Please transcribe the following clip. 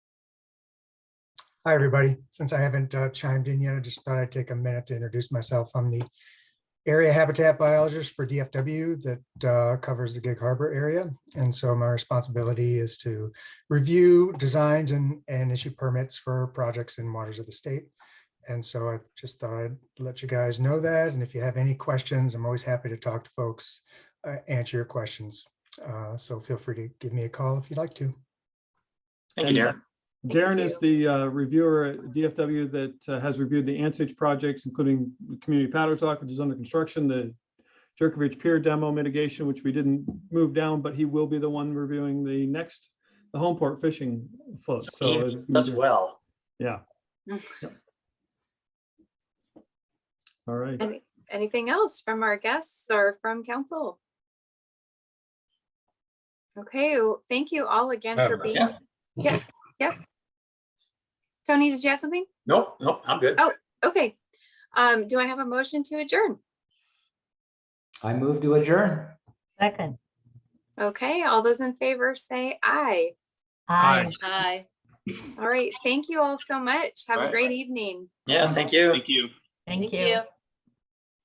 Hi, everybody. Since I haven't uh, chimed in yet, I just thought I'd take a minute to introduce myself. I'm the area habitat biologist for DFW that uh, covers the Gig Harbor area. And so my responsibility is to review designs and, and issue permits for projects in waters of the state. And so I just thought I'd let you guys know that. And if you have any questions, I'm always happy to talk to folks, uh, answer your questions. Uh, So feel free to give me a call if you'd like to. Thank you, And, Darren. uh, Darren is the uh, reviewer at DFW that uh, has reviewed the Ansage projects, including the community powder dock, which is under construction, the Jerkovich Pier demo mitigation, which we didn't move down, but he will be the one reviewing the next, the Homeport fishing float. So He it's- does well. yeah. Yeah. Mm. All right. Any, anything else from our guests or from council? Okay, well, thank you all again for Um, being, yeah. yeah, yes. Tony, did you have something? Nope, nope, I'm good. Oh. Okay, um, do I have a motion to adjourn? I move to adjourn. Second. Okay, all those in favor say aye. Aye. Hi. All right, thank you all so much. Have a Right. great evening. Yeah, thank you. Thank you.